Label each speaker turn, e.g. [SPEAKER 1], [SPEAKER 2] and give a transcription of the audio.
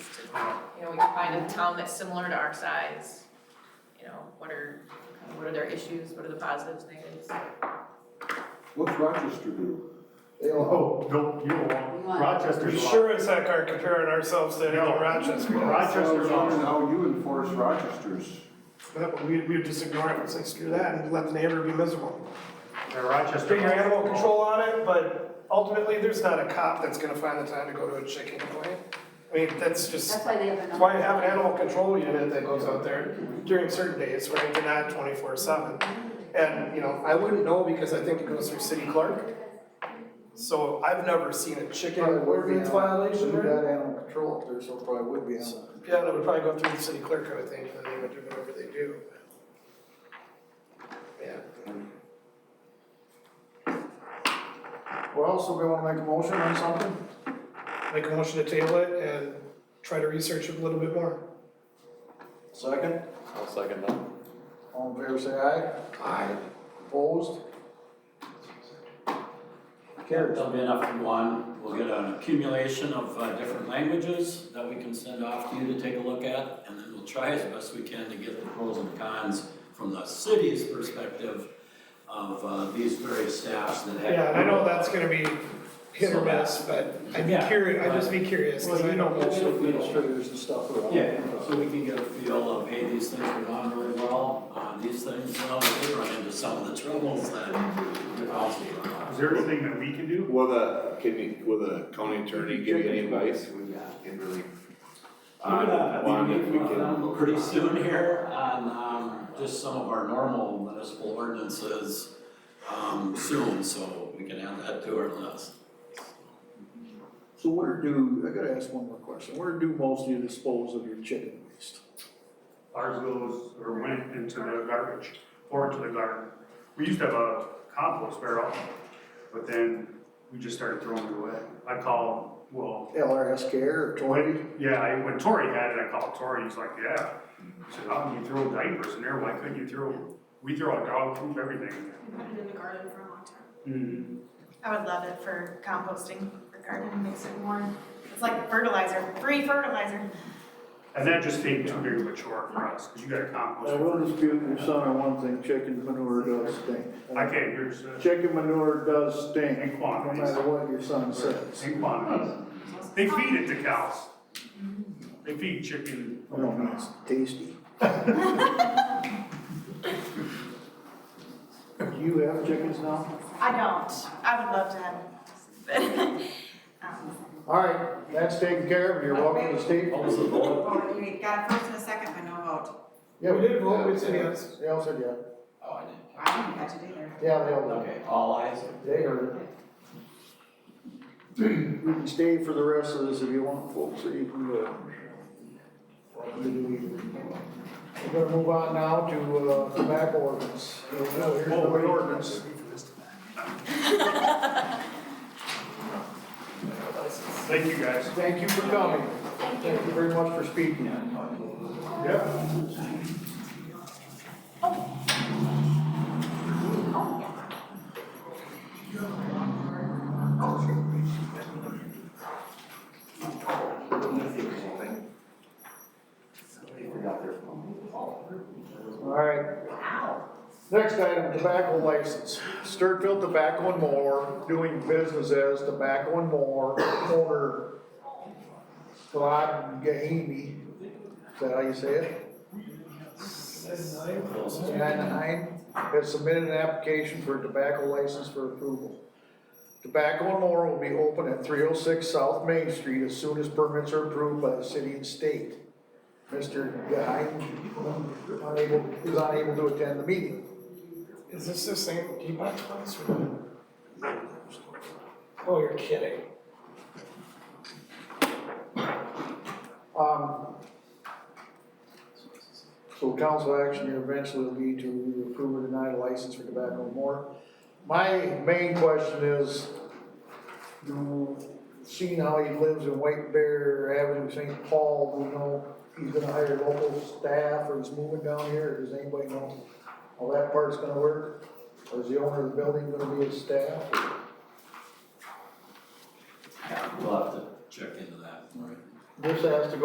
[SPEAKER 1] you know, we can find a town that's similar to our size. You know, what are, what are their issues, what are the positives, negatives?
[SPEAKER 2] What's Rochester do?
[SPEAKER 3] They all,
[SPEAKER 4] Oh, no, you don't
[SPEAKER 5] We
[SPEAKER 4] want,
[SPEAKER 5] want-
[SPEAKER 4] Rochester's
[SPEAKER 6] We
[SPEAKER 4] a lot.
[SPEAKER 6] sure as heck aren't comparing ourselves to any
[SPEAKER 4] No.
[SPEAKER 6] Rochester.
[SPEAKER 2] So I
[SPEAKER 4] Rochester's
[SPEAKER 2] was
[SPEAKER 4] a lot.
[SPEAKER 2] wondering how you enforce Rochester's.
[SPEAKER 6] But we, we would just ignore it and say, screw that, and let the neighbor be miserable.
[SPEAKER 4] Yeah, Rochester.
[SPEAKER 6] Put your animal control on it, but ultimately, there's not a cop that's gonna find the time to go to a chicken complaint. I mean, that's just,
[SPEAKER 5] That's why they have another.
[SPEAKER 6] that's why you have an animal control unit that goes out there during certain days, right, and not twenty-four seven. And, you know, I wouldn't know because I think it goes through city clerk. So I've never seen a chicken
[SPEAKER 3] Probably would be
[SPEAKER 6] ordinance
[SPEAKER 3] animal-
[SPEAKER 6] violation
[SPEAKER 3] should have
[SPEAKER 6] or
[SPEAKER 3] got animal control up there, so it probably would be animal.
[SPEAKER 6] Yeah, that would probably go through the city clerk, I would think, and then they would do whatever they do. Yeah.
[SPEAKER 3] Well, somebody wanna make a motion on something?
[SPEAKER 6] Make a motion to table it and try to research it a little bit more.
[SPEAKER 3] Second?
[SPEAKER 7] I'll second that.
[SPEAKER 3] All in favor, say aye. Aye. Opposed? Carries.
[SPEAKER 8] There'll be enough for one, we'll get an accumulation of uh, different languages that we can send off to you to take a look at, and then we'll try as best we can to get the pros and cons from the city's perspective of uh, these various staffs that have.
[SPEAKER 6] Yeah, and I know that's gonna be hit or miss, but I'd be
[SPEAKER 8] Yeah.
[SPEAKER 6] curious, I'd just be curious, because I don't
[SPEAKER 3] That's the
[SPEAKER 6] know.
[SPEAKER 3] administrators and stuff around.
[SPEAKER 8] Yeah, so we can get a feel of, hey, these things are going really well, uh, these things, well, we did run into some of the troubles that we also run into.
[SPEAKER 4] Is there anything that we can do?
[SPEAKER 7] Will the, can you, will the county attorney give you any advice? We can really.
[SPEAKER 8] I'm
[SPEAKER 7] Uh,
[SPEAKER 8] gonna
[SPEAKER 7] one
[SPEAKER 8] be
[SPEAKER 7] if we
[SPEAKER 8] meeting with
[SPEAKER 7] can-
[SPEAKER 8] them pretty soon here on, um, just some of our normal municipal ordinances, um, soon, so we can add that to our list.
[SPEAKER 3] So where do, I gotta ask one more question, where do most of you dispose of your chicken waste?
[SPEAKER 4] Ours goes, or went into the garbage, or into the garden. We used to have a compost barrel, but then we just started throwing it away. I called, well,
[SPEAKER 3] LRS care or Tory?
[SPEAKER 4] when, yeah, I- when Tori had it, I called Tori, he's like, yeah. I said, how can you throw diapers in there? Why couldn't you throw, we throw our dog poop, everything.
[SPEAKER 9] I've had it in the garden for a long time.
[SPEAKER 6] Hmm.
[SPEAKER 4] Mm-hmm.
[SPEAKER 9] I would love it for composting, for garden, makes it more, it's like fertilizer, free fertilizer.
[SPEAKER 4] And that just became too big of a chore for us, because you gotta compost.
[SPEAKER 3] I
[SPEAKER 4] it.
[SPEAKER 3] will dispute your son on one thing, chicken manure does stink.
[SPEAKER 4] I can't hear you say.
[SPEAKER 3] Chicken manure does stink,
[SPEAKER 4] In
[SPEAKER 3] no
[SPEAKER 4] quantities.
[SPEAKER 3] matter what your son says.
[SPEAKER 4] In quantities. They feed it to cows. They feed chicken.
[SPEAKER 3] I don't know, Oh, it's tasty. You have chickens now?
[SPEAKER 9] I don't, I would love to have it. But, um,
[SPEAKER 3] All right, that's taken care of, you're welcome to stay.
[SPEAKER 8] What was the vote?
[SPEAKER 9] oh, You got a first and a second, but no vote.
[SPEAKER 3] Yeah,
[SPEAKER 6] We did vote, we said yes.
[SPEAKER 3] They all said yeah,
[SPEAKER 8] Oh, I didn't.
[SPEAKER 9] I don't think I should either.
[SPEAKER 3] yeah, they all did.
[SPEAKER 8] Okay, all eyes.
[SPEAKER 3] They heard it. You can stay for the rest of this if you want, folks, or you can go. We're gonna move on now to uh, tobacco ordinance. Oh, here's
[SPEAKER 4] Oh,
[SPEAKER 3] another ordinance.
[SPEAKER 4] Thank you, guys.
[SPEAKER 3] Thank you for coming. Thank you very much for speaking.
[SPEAKER 4] Yeah.
[SPEAKER 3] All right. Next item, tobacco license. Sturfield Tobacco and More, doing business as Tobacco and More, owner Todd Gahimi. Is that how you say it? Anaheim has submitted an application for a tobacco license for approval. Tobacco and More will be open at three oh six South Main Street as soon as permits are approved by the city and state. Mr. Guy unable, is unable to attend the meeting.
[SPEAKER 6] Is this the same Piedmont place or not? Oh, you're kidding.
[SPEAKER 3] Um, so council action here eventually will be to approve or deny a license for tobacco and more. My main question is, do, seeing how he lives in White Bear Avenue, St. Paul, do we know he's gonna hire local staff or he's moving down here, or does anybody know how that part's gonna work? Or is the owner of the building gonna be his staff?
[SPEAKER 8] Yeah, we'll have to check into that. All right.
[SPEAKER 3] This has to go